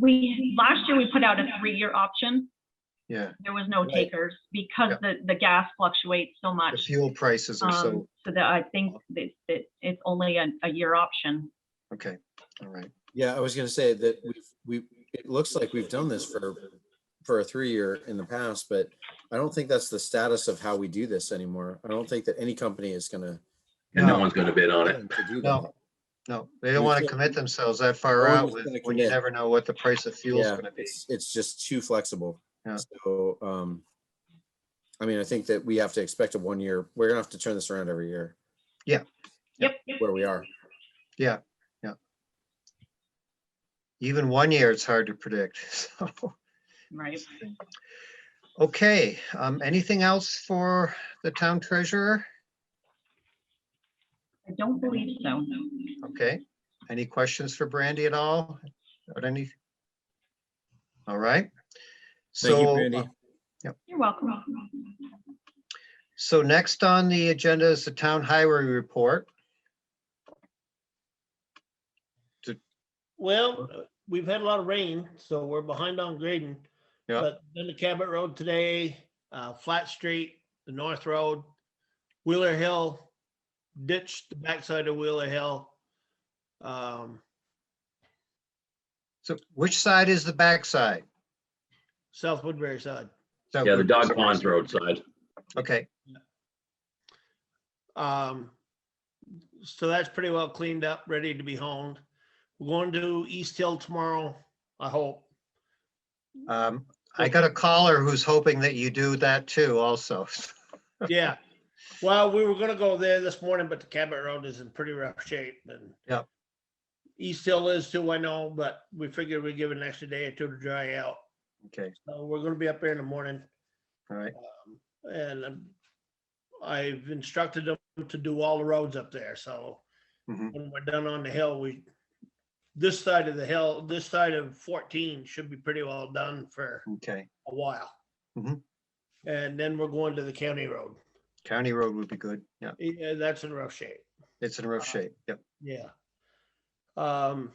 we, last year we put out a three-year option. Yeah, There was no Right. takers because Yeah. the, the gas fluctuates so the much. fuel prices are Um, so, so that I think that, that it's only a, a year option. okay, all right. Yeah, I was gonna say that we've, we, it looks like we've done this for, for a three-year in the past, but I don't think that's the status of how we do this anymore. I don't think that any company is gonna. And no No. one's gonna bid on it. willing to do that. No, no, they don't We want to can't- commit themselves that No far one out was with, gonna when you commit. never know what the price of fuel is Yeah, going to be. It's it's just too flexible. Yeah. So, um, I mean, I think that we have to expect a one-year, we're gonna have to turn this around every year Yep. where we are. Even one year, it's hard to predict, so. Right. Okay, um, anything else for the town treasurer? I don't believe so. Okay, any questions for Brandy at all? Or any? All right. Thank you, So, uh, Brandy. You're welcome. so next on the agenda is the town highway report. Well, uh, we've had a lot of rain, so we're behind on grading. Yeah. But then the Cabot Road today, uh, Flat Street, the North Road, Wheeler Hill, ditched the backside of Wheeler Hill. Um, So which side is the backside? South Woodbury side. So- Yeah, the dog pond's roadside. Okay, Um, so that's pretty well cleaned up, ready to be honed. We're going to East Hill tomorrow, I hope. um, I got a caller who's hoping that you do that too also. Yeah. Well, we were gonna go there this morning, but the Cabot Road is in pretty rough shape and. Yep. East Hill is too, I know, but we figured we'd give it an extra day or two to dry out. Okay, So we're gonna be up there in the morning all right, um, and um, I've instructed them to do all the roads up there, so. Mhm. When we're done on the hill, we, this side of the hill, this side of fourteen should be pretty well done for okay. a while. Mhm. And then we're going to the county road. County road would be good. Yeah, Yeah, that's in rough shape. it's in rough shape. Yep. Yeah. Um.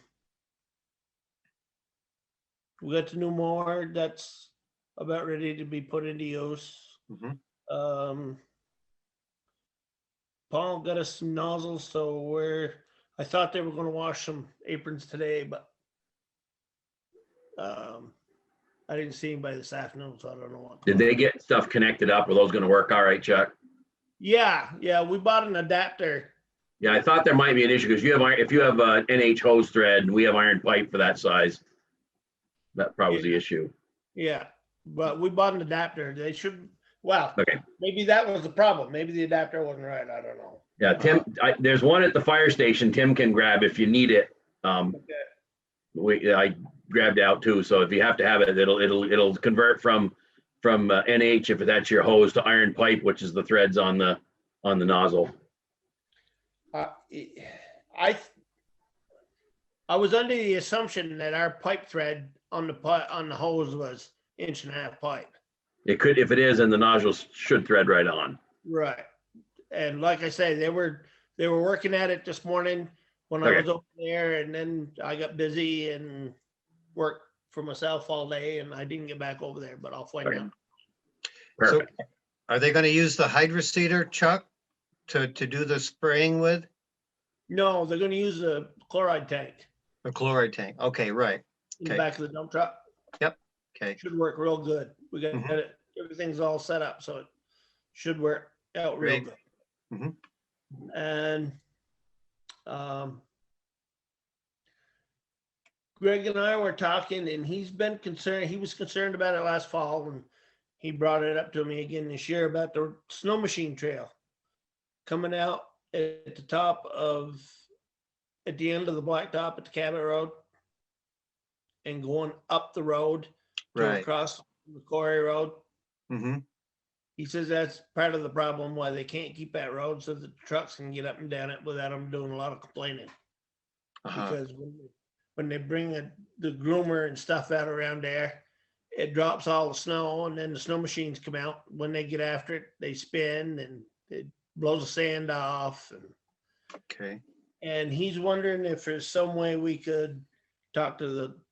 We got the new mower that's about ready to be put into use. Mhm. Mm-hmm. Um. Paul got us some nozzles, so we're, I thought they were gonna wash some aprons today, but. Um, I didn't see anybody this afternoon, so I don't know what. Did they get stuff connected up? Are those gonna work all right, Chuck? Yeah, yeah, we bought an adapter. Yeah, I thought there might be an issue because you have, iron- if you have a NH hose thread and we have iron pipe for that size, that probably was the issue. Yeah, but we bought an adapter. They should, well, Okay. maybe that was the problem. Maybe the adapter wasn't right. I don't know. Yeah, Tim, I, there's one at the fire station Tim can grab if you need it. Um, Okay. we, I grabbed out too, so if you have to have it, it'll, it'll, it'll convert from, from uh, NH if that's your hose to iron pipe, which is the threads on the, on the nozzle. Uh, it- I, th- I was under the assumption that our pipe thread on the pi- on the hose was inch and a half pipe. It could, if it is, and the nodules should thread right on. Right. And like I say, they were, they were working at it this morning when I Okay. was over there and then I got busy and worked for myself all day and I didn't get back over there, but I'll find Okay. out. So Perfect. Are they going to use the hydroseeder, Chuck, to, to do the spraying with? No, they're gonna use a chloride tank The chloride tank? Okay, right, in the Okay. back of the dump truck. okay. Should work real good. We got Mhm. it, everything's all set up, so it should work out real Great. good. Mhm. And um Greg and I were talking and he's been concerned, he was concerned about it last fall and he brought it up to me again this year about the snow machine trail coming out at the top of, at the end of the blacktop at the Cabot Road and going up the road to Right. across the quarry road. Mm-hmm, He says that's part of the problem why they can't keep that road so the trucks can get up and down it without them doing a lot of complaining. uh-huh, Because when, they- when they bring the, the groomer and stuff out around there, it drops all the snow and then the snow machines come out. When they get after it, they spin and it blows the sand off and okay. and he's wondering if there's some way we could talk to the